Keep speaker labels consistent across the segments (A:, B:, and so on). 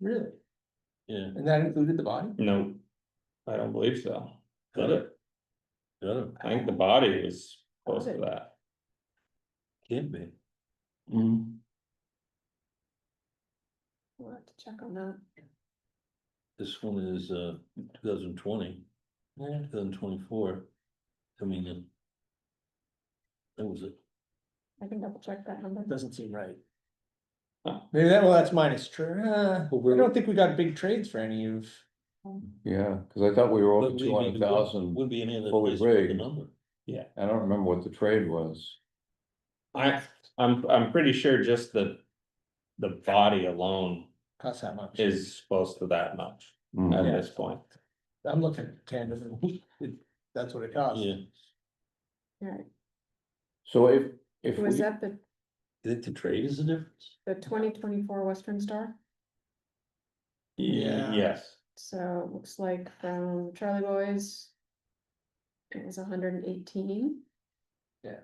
A: Really?
B: Yeah,
A: And that included the body?
C: No, I don't believe so.
B: got it. Got it,
C: I think the body was close to that.
B: can't be. Mm-hmm.
C: Mm.
D: We'll have to check on that.
B: This one is uh two thousand twenty,
A: Yeah.
B: two thousand twenty-four. I mean. uh, That was it.
D: I can double check that number.
A: Doesn't seem right.
C: Huh.
A: Maybe that, well, that's minus true. I
B: But we're-
A: don't think we got big trades for any of,
E: Yeah, cause I thought we were over
B: But we-
E: two
B: we-
E: hundred
B: we
E: thousand.
B: Wouldn't be any other
E: fully
B: place with the
E: rigged.
B: number.
E: I don't remember what the trade was.
C: I, I'm, I'm pretty sure just the. The body alone
A: cost that much.
C: is close to that much at
E: Mm.
A: Yeah.
C: this point.
A: I'm looking at tandem, it- that's what it costs.
B: Yeah,
D: Alright,
E: So if, if
D: was
E: we,
D: that the,
B: you think the trade is the difference?
D: the twenty twenty-four Western Star?
A: Yeah.
C: Yes,
D: So it looks like from Charlie Boys. It was hundred and eighteen.
A: Yeah.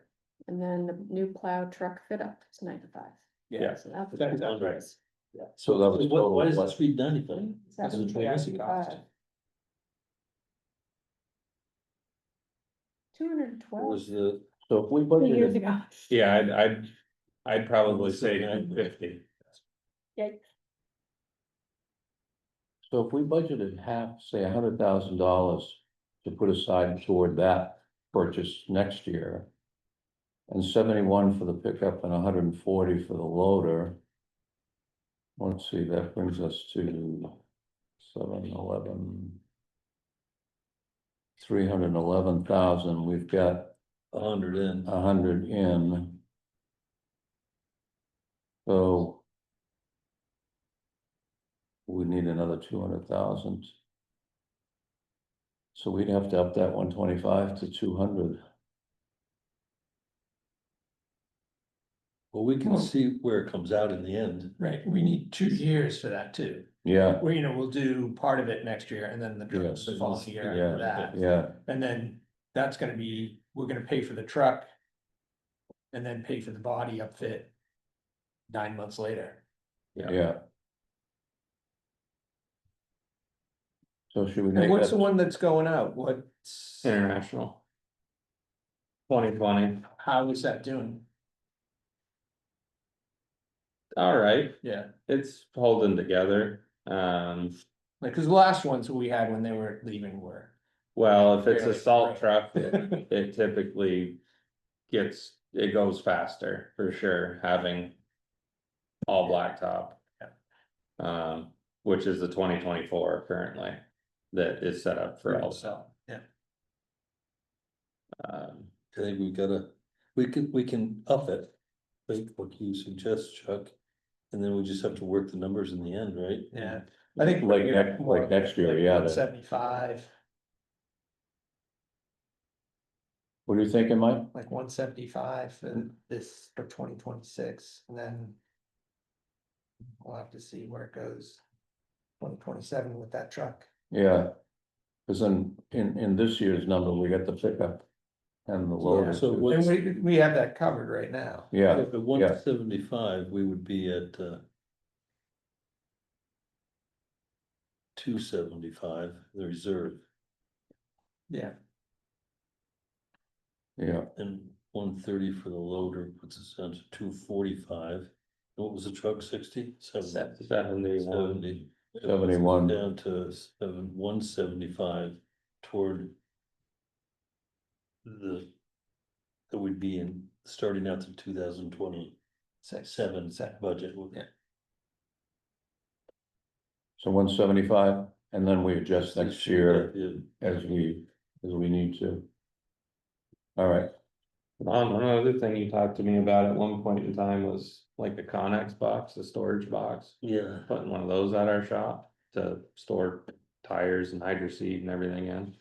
D: And then the new plow truck fit up is ninety-five.
A: Yeah.
D: So that's.
A: That-
D: what
B: that's right.
D: it is.
E: so that was
B: Why, why
E: total,
B: is that
E: what,
B: street ninety-five?
D: That's
B: Is it
D: what
B: trade?
A: That's the cost.
D: Two hundred and
B: What Was
D: twelve
B: the,
E: so if we
D: years
E: budgeted,
D: ago.
C: yeah, I'd, I'd, I'd probably say nine fifty.
E: so if we budgeted half, say a hundred thousand dollars. To put aside toward that purchase next year. And seventy-one for the pickup and hundred and forty for the loader. Let's see, that brings us to seven eleven. Three hundred and eleven thousand, we've got
B: a hundred in,
E: a hundred in. So. We need another two hundred thousand. So we'd have to up that one twenty-five to two hundred.
B: well, we can
E: Well-
B: see where it comes out in the end.
A: Right, we need two years for that too.
E: Yeah,
A: Well, you know, we'll do part of it next year and then the
E: Yes.
A: trucks the following year
E: Yeah.
A: after that.
E: yeah,
A: And then that's gonna be, we're gonna pay for the truck. And then pay for the body upfit. Nine months later.
E: yeah. So should we
A: And
E: make
A: what's the
E: that,
A: one that's going out? What's,
C: International. Twenty twenty,
A: how is that doing?
C: all right,
A: Yeah,
C: it's holding together. Um,
A: like, cause the last ones we had when they were leaving were.
C: well, if it's
A: Really?
C: a salt truck, it typically gets, it goes faster for sure, having all blacktop. Um, which is the twenty twenty-four currently that is set up for all,
A: So, yeah.
E: Mm-hmm.
C: um,
B: I think we gotta, we can, we can up it, like what you suggest, Chuck. And then we just have to work the numbers in the end, right?
A: Yeah, I think.
E: Like next- like next year, yeah, that-
A: Seventy-five,
E: what are you thinking, Mike?
A: like one seventy-five and this for twenty twenty-six and then. We'll have to see where it goes. Twenty twenty-seven with that truck.
E: Yeah. Cause in, in, in this year's number, we got the pickup and the loader.
B: So
E: too.
B: what-
A: And
B: What's-
A: we, we have that covered right now.
E: Yeah,
B: If at one seventy-five, we would be at, uh. Two seventy-five, the reserve,
A: Yeah.
E: yeah,
B: and one thirty for the loader puts us down to two forty-five. What was the truck, sixty? Seventy.
C: is that in the one?
B: Seventy. It puts us
E: 71.
B: Down to seven, one seventy-five toward. The. That would be in, starting out to two thousand twenty-seven
A: Six. Seven.
B: budget.
A: Yeah.
E: so one seventy-five, and then we adjust next year.
B: Yeah.
E: as we, as we need to. All right,
C: Um, another thing you talked to me about at one point in time was like the Connex box, the storage box.
B: Yeah,
C: putting one of those at our shop to store tires and hydro seed and everything in.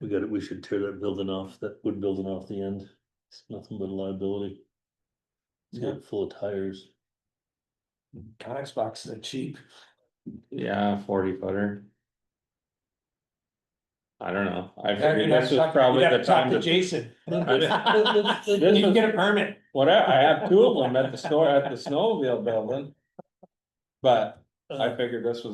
B: we got it, we should tear that building off, that wood building off the end, it's nothing but a liability. It's got full of tires,
A: Conex boxes are cheap.
C: Yeah, forty footer. I don't know, I
A: Yeah,
C: figured
A: you'd have
C: this
A: to
C: was
A: talk-
C: probably
A: you'd have
C: the
A: to talk
C: time
A: to
C: to,
A: Jason.
C: This
A: You
C: was-
A: can get a permit.
C: what, I I have
A: Uh.
C: two of them at the store, at the snowmobile building. But I figured this was